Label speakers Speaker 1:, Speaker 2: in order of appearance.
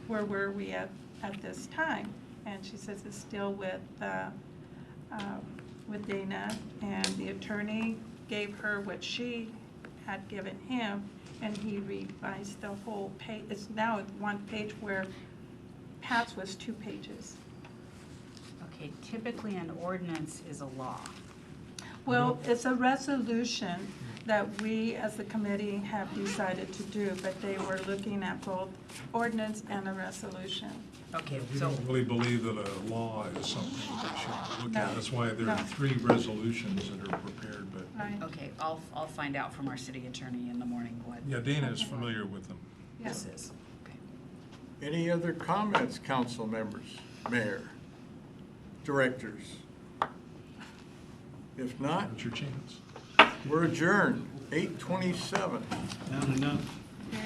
Speaker 1: where were we at, at this time? And she says it's still with, uh, um, with Dana, and the attorney gave her what she had given him, and he revised the whole page. It's now at one page where Pat's was two pages.
Speaker 2: Okay, typically an ordinance is a law.
Speaker 1: Well, it's a resolution that we, as the committee, have decided to do, but they were looking at both ordinance and a resolution.
Speaker 2: Okay,
Speaker 3: We
Speaker 2: so,
Speaker 3: don't really believe that a law is something that should look
Speaker 1: No,
Speaker 3: at. That's why there
Speaker 1: no.
Speaker 3: are three resolutions that are prepared, but,
Speaker 1: Right.
Speaker 2: okay, I'll, I'll find out from our city attorney in the morning what
Speaker 3: yeah, Dana is familiar with them.
Speaker 2: this is. Okay.
Speaker 4: Any other comments, council members, mayor, directors? If not,
Speaker 3: That's your chance.
Speaker 4: we're adjourned, eight twenty-seven.
Speaker 5: Not enough.